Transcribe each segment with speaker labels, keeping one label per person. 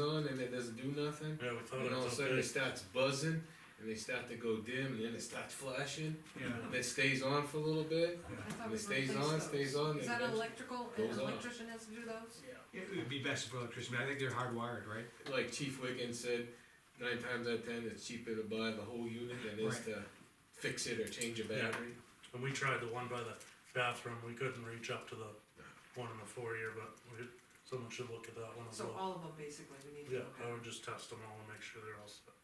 Speaker 1: on and it doesn't do nothing.
Speaker 2: Yeah, we thought
Speaker 1: And
Speaker 2: it
Speaker 1: all of a
Speaker 2: was
Speaker 1: sudden
Speaker 2: Oh, okay.
Speaker 1: it starts buzzing and they start to go dim and then it starts flashing.
Speaker 3: Yeah.
Speaker 1: And
Speaker 2: Uh-huh.
Speaker 1: it stays on for a little bit
Speaker 3: Yeah.
Speaker 4: I thought
Speaker 1: and
Speaker 4: we
Speaker 1: it stays
Speaker 4: replaced
Speaker 1: on,
Speaker 4: those.
Speaker 1: stays on.
Speaker 4: Is
Speaker 1: and
Speaker 4: that an
Speaker 1: eventually-
Speaker 4: electrical, an
Speaker 1: goes on.
Speaker 4: electrician has to do those?
Speaker 3: It would be best for electricity, but I think they're hardwired, right?
Speaker 1: Like Chief Wiggins said, nine times out of ten, it's cheaper to buy the whole unit than it is
Speaker 3: Right.
Speaker 1: to fix it or change a
Speaker 2: Yeah.
Speaker 1: battery.
Speaker 2: And we tried the one by the bathroom, we couldn't reach up to the one in the foyer, but we, someone should look at that one as
Speaker 4: So
Speaker 2: well.
Speaker 4: all of them basically, we need to
Speaker 2: Yeah,
Speaker 4: look
Speaker 2: I
Speaker 4: at.
Speaker 2: would just test them all and make sure they're all set.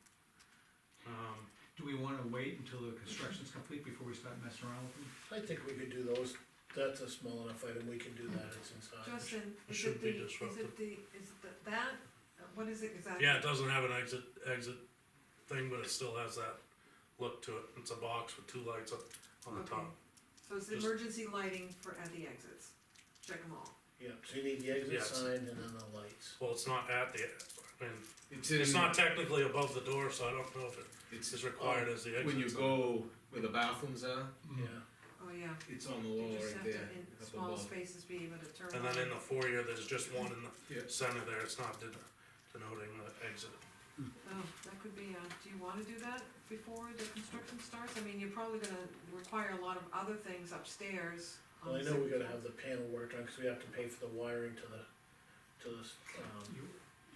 Speaker 2: Um,
Speaker 3: Do we wanna wait until the construction's complete before we start messing around with them?
Speaker 5: I think we could do those, that's a small enough item, we can do that, it's inside.
Speaker 4: Justin,
Speaker 2: it
Speaker 4: is
Speaker 2: shouldn't
Speaker 4: it the,
Speaker 2: be
Speaker 4: is
Speaker 2: disruptive.
Speaker 4: it the, is it the- that, Uh, what is it exactly?
Speaker 2: yeah, it doesn't have an exit, exit thing, but it still has that look to it, it's a box with two lights up on the
Speaker 4: Okay.
Speaker 2: top.
Speaker 4: So it's
Speaker 2: Just-
Speaker 4: emergency lighting for, at the exits, check them all.
Speaker 5: Yeah, so you need the exit
Speaker 2: Yes.
Speaker 5: sign and then the lights.
Speaker 2: Well, it's not at the, I mean,
Speaker 1: It's
Speaker 2: it's
Speaker 1: in,
Speaker 2: not technically above the door, so I don't know if it
Speaker 1: it's,
Speaker 2: is required as the exit.
Speaker 1: Oh, when you
Speaker 2: sign.
Speaker 1: go where the bathrooms are,
Speaker 3: Mm-hmm.
Speaker 2: Mm.
Speaker 5: Yeah,
Speaker 4: Oh, yeah,
Speaker 1: it's on the
Speaker 4: you
Speaker 1: wall
Speaker 4: just
Speaker 1: right
Speaker 4: have to,
Speaker 1: there.
Speaker 4: in
Speaker 1: up
Speaker 4: small
Speaker 1: above.
Speaker 4: spaces, be able to turn on.
Speaker 2: And then in the foyer, there's just one in
Speaker 1: Yeah.
Speaker 2: the center there, it's not den- denoting the exit.
Speaker 4: Oh, that could be, uh, do you wanna do that before the construction starts? I mean, you're probably gonna require a lot of other things upstairs. on
Speaker 5: well, I
Speaker 4: the
Speaker 5: know we
Speaker 4: second
Speaker 5: gotta
Speaker 4: floor.
Speaker 5: have the panel worked on, cause we have to pay for the wiring to the, to the, s- um,
Speaker 3: You, you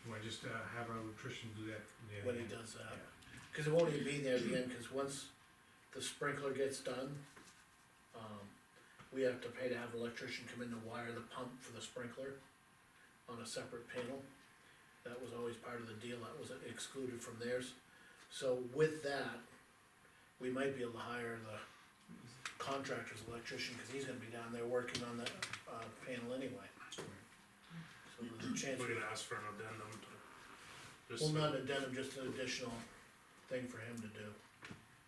Speaker 3: wanna just, uh, have our electrician do that? Yeah.
Speaker 5: when he does that. Cause it won't even be there again, cause once the sprinkler gets done, um, we have to pay to have an electrician come in to wire the pump for the sprinkler on a separate panel. That was always part of the deal, that was excluded from theirs. So with that, we might be able to hire the contractor's electrician, cause he's gonna be down there working on that, uh, panel anyway. So there's a chance.
Speaker 2: We're
Speaker 5: we
Speaker 2: gonna ask for an addendum to. just-
Speaker 5: well, not an addendum, just an additional thing for him to do.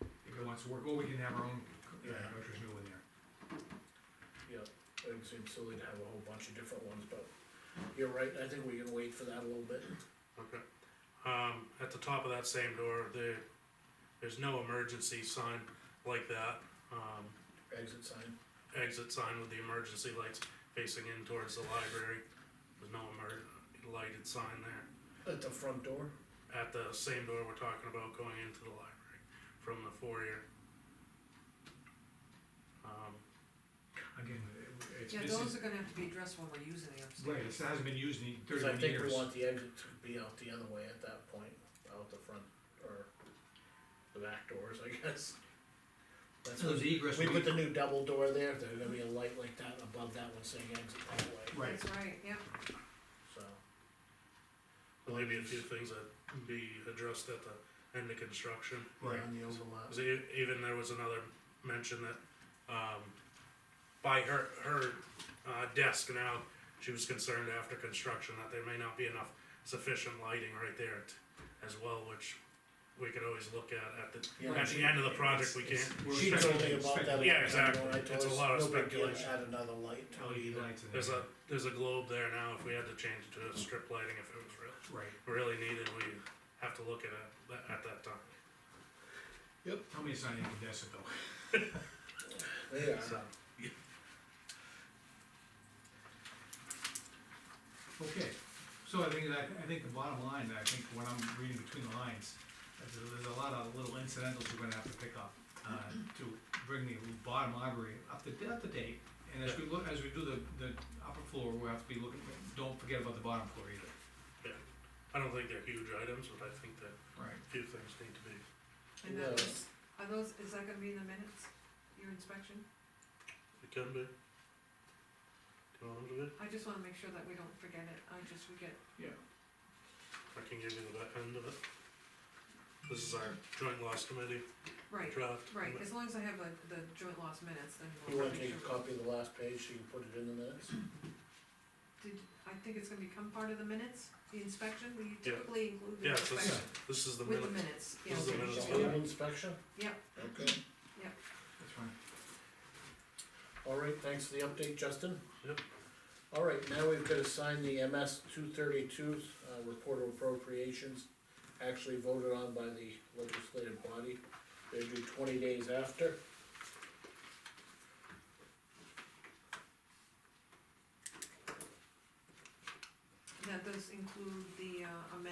Speaker 3: If it wants to work, or we can have our own uh,
Speaker 5: Yeah.
Speaker 3: electrician go in there.
Speaker 5: Yeah, it would seem silly to have a whole bunch of different ones, but you're right, I think we can wait for that a little bit.
Speaker 2: Okay, um, at the top of that same door, there, there's no emergency sign like that, um,
Speaker 5: Exit sign,
Speaker 2: exit sign with the emergency lights facing in towards the library. There's no emer, lighted sign there.
Speaker 5: at the front door,
Speaker 2: at the same door we're talking about going into the library from the foyer. Um,
Speaker 3: Again, it- it's,
Speaker 4: Yeah,
Speaker 3: this
Speaker 4: those
Speaker 3: is,
Speaker 4: are gonna have to be addressed when we're using the upstairs.
Speaker 3: right, this hasn't been used in
Speaker 5: cause I
Speaker 3: thirty-one
Speaker 5: think we
Speaker 3: years.
Speaker 5: want the exit to be out the other way at that point, out the front, or the back doors, I guess. That's
Speaker 3: So
Speaker 5: what,
Speaker 3: there's egress.
Speaker 5: we
Speaker 3: we-
Speaker 5: put the new double door there, there's gonna be a light like that above that one saying exit that way,
Speaker 3: Right,
Speaker 4: That's right, yeah,
Speaker 5: so.
Speaker 2: there may be a few things that be addressed at the end of construction.
Speaker 3: right.
Speaker 5: On the overlap,
Speaker 2: 'Cause e- even there was another mention that, um, by her, her, uh, desk now, she was concerned after construction that there may not be enough sufficient lighting right there t- as well, which we could always look at at
Speaker 5: Yeah.
Speaker 2: the, at the end of the project, we
Speaker 5: It's-
Speaker 2: can't.
Speaker 3: We're
Speaker 5: she told me
Speaker 3: speculating-
Speaker 5: about that.
Speaker 2: Yeah,
Speaker 5: when I
Speaker 2: exactly.
Speaker 5: told
Speaker 2: It's a
Speaker 5: us,
Speaker 2: lot of
Speaker 5: no big deal,
Speaker 2: speculation.
Speaker 5: Add another light to it
Speaker 3: LED
Speaker 5: either.
Speaker 3: lights in there.
Speaker 2: There's a, there's a globe there now, if we had to change it to a strip lighting, if it was real,
Speaker 3: Right,
Speaker 2: really needed, we have to look at it tha- at that time.
Speaker 3: tell me it's not incandescent though.
Speaker 5: They are.
Speaker 2: So,
Speaker 3: Okay, so I think that, I think the bottom line, I think when I'm reading between the lines, is that there's a lot of little incidentals we're gonna have to pick up, uh, to bring the bottom library up to, up to date. And as we look, as we do the, the upper floor, we'll have to be looking, don't forget about the bottom floor either.
Speaker 2: I don't think they're huge items, but I think that
Speaker 3: Right.
Speaker 2: a few things need to be,
Speaker 4: and
Speaker 5: Yeah.
Speaker 4: that was, are those, is that gonna be in the minutes, your inspection?
Speaker 2: it can be. Do you want them to be?
Speaker 4: I just wanna make sure that we don't forget it, I just, we get,
Speaker 2: I can give you the back end of it. This is our joint loss committee
Speaker 4: right,
Speaker 2: draft.
Speaker 4: right, as long as I have the, the joint loss minutes, then
Speaker 5: You
Speaker 4: we'll
Speaker 5: wanna
Speaker 4: make
Speaker 5: take a
Speaker 4: sure.
Speaker 5: copy of the last page so you can put it in the minutes?
Speaker 4: Did, I think it's gonna become part of the minutes, the inspection, we
Speaker 2: Yeah.
Speaker 4: typically include the
Speaker 2: Yeah, so
Speaker 4: inspection
Speaker 2: this, this is the
Speaker 4: with the
Speaker 2: minute.
Speaker 4: minutes, yeah.
Speaker 2: This is the minutes.
Speaker 5: Just leave Inspection?
Speaker 4: Yep.
Speaker 5: Okay,
Speaker 3: That's fine.
Speaker 5: all right, thanks for the update, Justin.
Speaker 2: Yep.
Speaker 5: All right, now we've gotta sign the MS two thirty-two, uh, report of appropriations, actually voted on by the legislative body. They're due twenty days after.
Speaker 4: That those include the uh, amendment